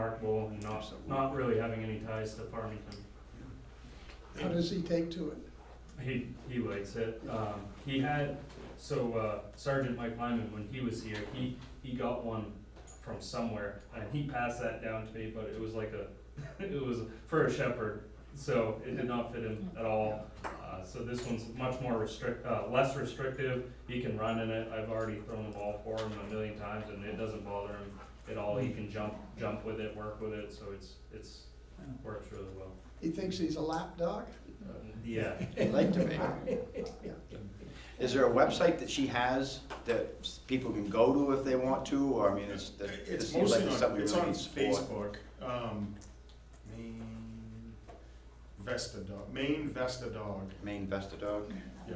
remarkable and not, not really having any ties to Farmington. How does he take to it? He, he likes it. Um, he had, so uh, Sergeant Mike Lyman, when he was here, he, he got one from somewhere and he passed that down to me, but it was like a, it was for a shepherd. So it did not fit him at all. Uh, so this one's much more restrict, uh, less restrictive. He can run in it. I've already thrown the ball for him a million times and it doesn't bother him at all. He can jump, jump with it, work with it. So it's, it's, works really well. He thinks he's a lapdog? Uh, Yeah. Like to be. Is there a website that she has that s- people can go to if they want to, or I mean, it's, that- it It's seems like mostly it's on, something we it's really on need support. Facebook, um, Maine Vesta Dog, Maine Vesta Dog, Maine Vesta Dog, yeah,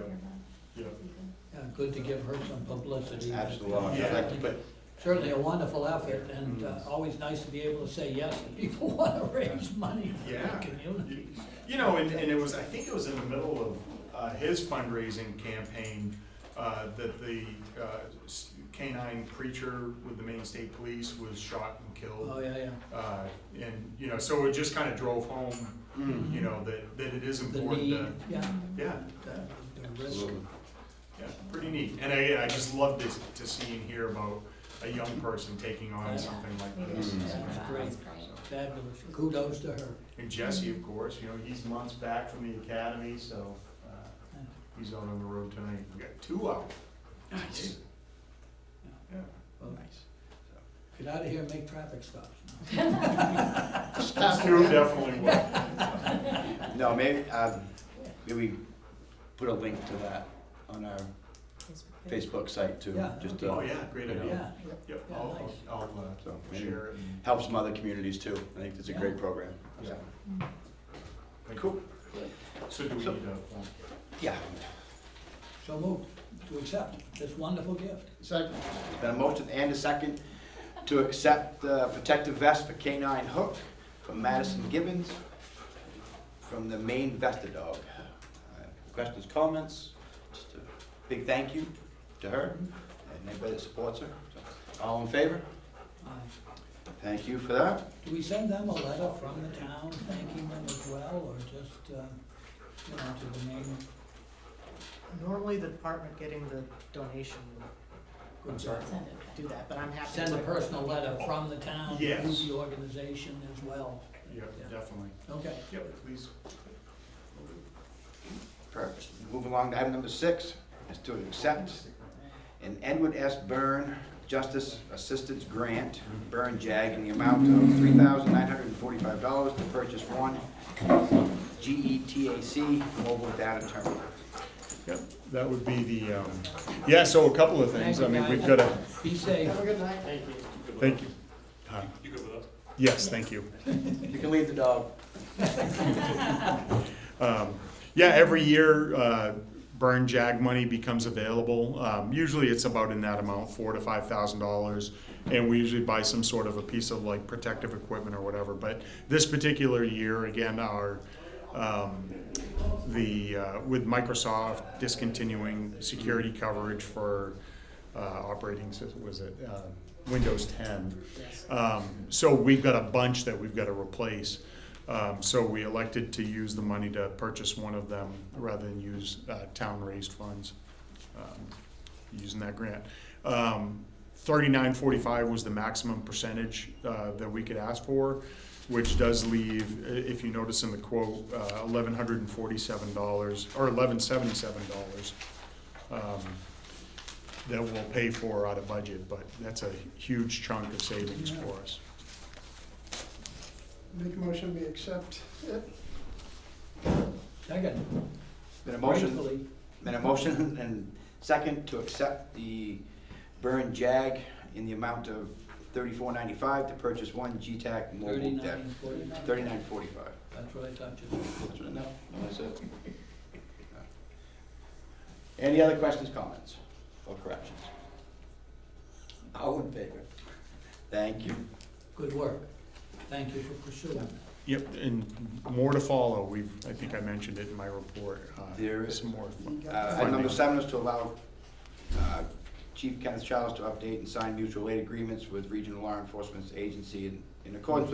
yeah. Yeah, uh, good to give her some Mm-hmm. publicity. absolutely, I'd like to put, Certainly a wonderful effort, and uh, always nice to be able to say yes when people want to raise money for Yeah. the community. You know, and, and it was, I think it was in the middle of uh, his fundraising campaign uh, that the uh, s- canine preacher with the Maine State Police was shot and Oh, killed. yeah, yeah. Uh, And, you know, so it just kind of drove home, mm, you know, that, that it is The important uh, need, to, yeah, yeah, the the risk. absolutely. Yeah, pretty neat. And again, I just love this, to see and hear about a young person taking on something like this. That's great, fabulous. Kudos to her. And Jesse, of course, you know, he's months back from the academy, so, uh, he's out on the road tonight. We got two out. Nice. Yeah. Well, Nice. Get out of here and make traffic stops. Those Two definitely will. No, maybe, um, maybe put a link to that on our Facebook site too, Yeah, just Oh, to, yeah, great idea. Yeah, Yep, Yeah, I'll, nice. I'll, So, uh, maybe- share it. and- help some other communities too, I think it's a great program. Yeah. Thank you. Cool, So do we need So- a form? yeah, so moved to accept this wonderful gift. Second, Been a motion and a second to accept the protective vest for K-9 Hook from Madison Gibbons from the Maine Vesta Dog. Uh, Questions, comments? Just a big thank you to her and anybody that supports her. So, All in favor? Uh, Thank you for that. Do we send them a letter from the town thanking them as well, or just, uh, you know, to the name? Normally, the department getting the donation I'm sorry. would do that, but I'm happy. Send a to- personal letter from the town to Yes. the organization as well. Yep, definitely. Okay. Yep, please. Perfect. Move along to item number six, is to accept an Edward S. Byrne Justice Assistance Grant, Byrne JAG, in the amount of three thousand nine hundred and forty-five dollars to purchase one E GETAC mobile data terminal. Yep, that would be the, um, yeah, so a couple of things, I mean, we've got a, Be safe. have a good night. thank you. Huh? You good with us? Yes, thank you. You can leave the dog. Um, Yeah, every year, uh, burn jag money becomes available. Um, Usually it's about in that amount, four to five thousand dollars. And we usually buy some sort of a piece of like protective equipment or whatever. But this particular year, again, our, um, the, uh, with Microsoft discontinuing security coverage for uh, operating, sys- was it uh, Windows 10? Um, So we've got a bunch that we've got to replace. Um, So we elected to use the money to purchase one of them rather than use uh, town-raised funds, um, using that grant. Um, Thirty-nine forty-five was the maximum percentage uh, that we could ask for, which does leave, i- if you notice in the quote, uh, eleven hundred and forty-seven dollars, or eleven seventy-seven dollars um, that we'll pay for out of budget, but that's a huge chunk of savings for us. Make a motion, we accept it. Second, Been a motion, gratefully, been a motion and second to accept the Byrne JAG in the amount of thirty-four ninety-five to purchase one GTAC mobile data. thirty-nine, forty-nine. Thirty-nine forty-five. That's what I thought you said. That's what I know. No, that's it. Any other questions, comments, or corrections? All in favor? Thank you. Good work. Thank you for pursuing that. Yep, and more to follow, we've, I think I mentioned it in my report, uh, There is- some more. fun- Uh, Item number seven is to allow uh, Chief Kenneth Childs to update and sign mutual aid agreements with regional law enforcement agency in- in accordance with